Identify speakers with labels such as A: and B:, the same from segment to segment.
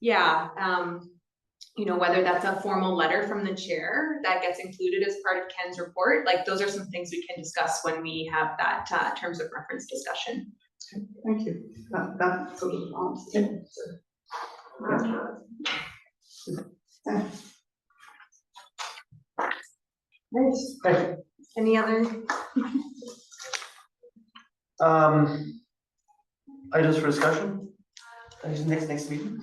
A: yeah, um, you know, whether that's a formal letter from the chair that gets included as part of Ken's report, like those are some things we can discuss when we have that, uh, terms of reference discussion.
B: Thank you. That, that sort of answers it. So, yeah. Yes, great.
A: Any other
C: Um, items for discussion? Uh, Next, next meeting?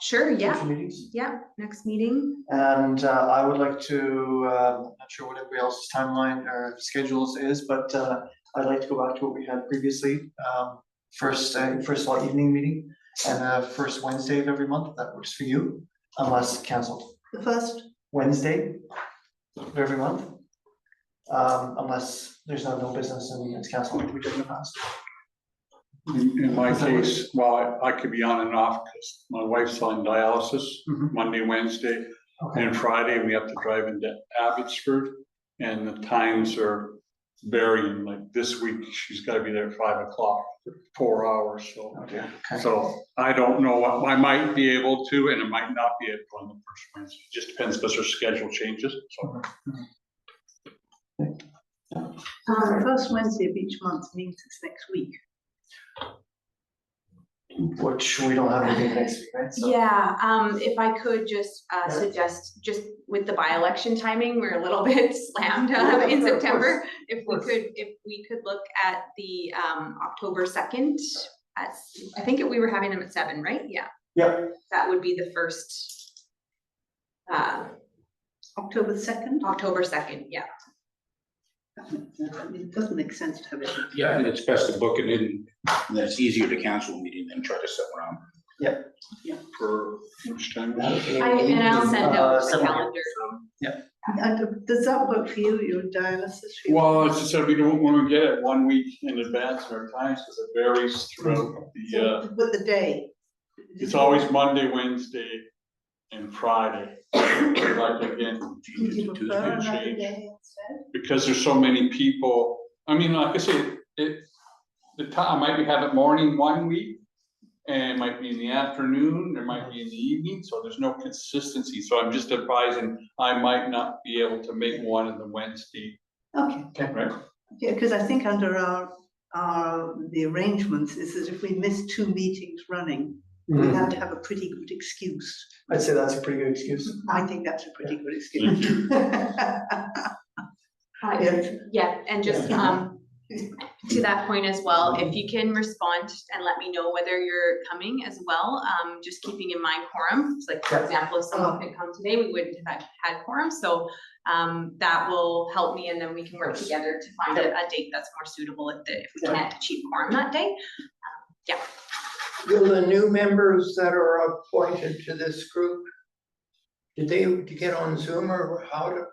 A: Sure, yeah,
C: future Meetings,
A: yeah, next meeting,
C: and uh, I would like to, uh, I'm not sure what everybody else's timeline or schedules is, but uh, I'd like to go back to what we had previously. Um, first, uh, first law evening meeting and uh, first Wednesday of every month, if that works for you, unless canceled.
B: The first,
C: Wednesday of every month. Um, unless there's no, no business and it's canceled, like we did in the past.
D: In in my case, well, I- I could be on and off because my wife's on dialysis
C: Mhm.
D: Monday, Wednesday,
C: Okay,
D: and Friday, we have to drive into Abbotsford. And the times are varying, like this week, she's got to be there at five o'clock, for four hours, so.
C: okay, okay.
D: So I don't know, what- I might be able to, and I might not be able on the first Wednesday, It just depends because her schedule changes, so.
B: uh,
A: Um,
B: the first Wednesday of each month means it's next week.
C: Which we don't have anything next week, right? So-
A: yeah, um, if I could just, uh,
C: Yeah.
A: suggest, just with the by-election timing, we're a little bit slammed
C: Yeah,
A: uh, in
C: of course.
A: September. If we
C: course.
A: could, if we could look at the, um, October second, at, I think we were having them at seven, right? Yeah,
C: Yep,
A: that would be the first, uh,
B: October second?
A: October second, yeah.
B: It doesn't make sense to have it.
E: Yeah, and it's best to book it in, and it's easier to cancel a meeting than try to sit around.
D: For which time?
A: I, and I'll send
C: Uh,
A: out the
C: seven, yeah.
A: calendar.
B: And does that work for you, your dialysis?
D: Well, it's just that we don't want to get it one week in advance of our times because it varies throughout the, uh,
B: With the day.
D: it's always Monday, Wednesday, and Friday. But Like again,
B: Would you
D: Tuesday,
B: prefer
D: Tuesday
B: another
D: change,
B: day instead?
D: because there's so many people, I mean, like I said, it, the time, I might be having morning one week. And it might be in the afternoon, there might be in the evening, so there's no consistency, so I'm just advising, I might not be able to make one on the Wednesday,
B: Okay.
D: right?
B: Yeah, because I think under our, our, the arrangements is that if we miss two meetings running, we
C: Mhm.
B: have to have a pretty good excuse.
C: I'd say that's a pretty good excuse.
B: I think that's a pretty good excuse.
A: Uh,
B: Yes.
A: Yeah, and just,
B: Yeah.
A: um, to that point as well, if you can respond and let me know whether you're coming as well, um, just keeping in mind quorum. It's Like, for
C: Yeah.
A: example, if someone could come today, we wouldn't have had quorum, so, um, that will help me and then we can work together to find a, a date that's more suitable if, the- if we
C: Yeah.
A: can't achieve quorum that day.
F: Will the new members that are appointed to this group, did they get on Zoom or how to?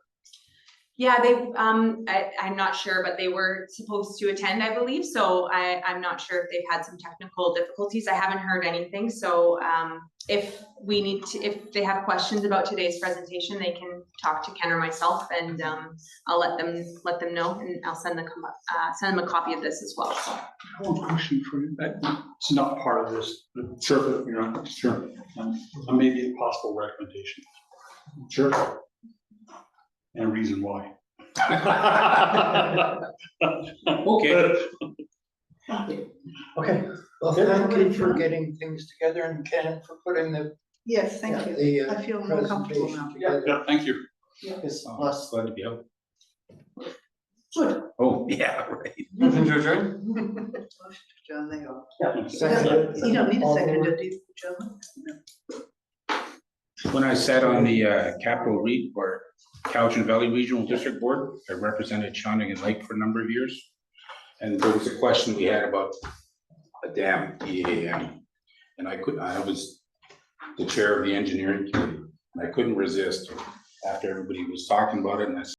A: Yeah, they, um, I, I'm not sure, but they were supposed to attend, I believe, so I, I'm not sure if they've had some technical difficulties, I haven't heard anything, so, um, if we need to, if they have questions about today's presentation, they can talk to Ken or myself, and, um, I'll let them, let them know, and I'll send the, co- uh, send them a copy of this as well, so.
D: One question for you, that, Uh, it's not part of this, but sure, you're on, sure, um, maybe a possible recommendation. Sure. And a reason why.
E: Okay.
C: Okay,
F: Well, thank you for getting things together and Ken for putting the,
B: Yes, thank you.
F: the uh,
B: I feel more comfortable
F: presentation
B: now.
F: together.
D: Yeah, thank you.
C: it's
E: Plus,
C: last,
E: Oh, glad to be out.
B: Good.
E: Oh, yeah, right.
C: nothing to adjourn?
B: Motion to adjourn, there you are.
C: Yeah.
B: Second. You don't need a
C: All in
B: second,
C: favor?
B: do you, John?
E: When I sat on the uh, Capital Re, or Cowichan Valley Regional District Board, I represented Shining and Lake for a number of years. And there was a question we had about a dam, EAM. And I could, I was the chair of the engineering committee, and I couldn't resist after everybody was talking about it, and I said,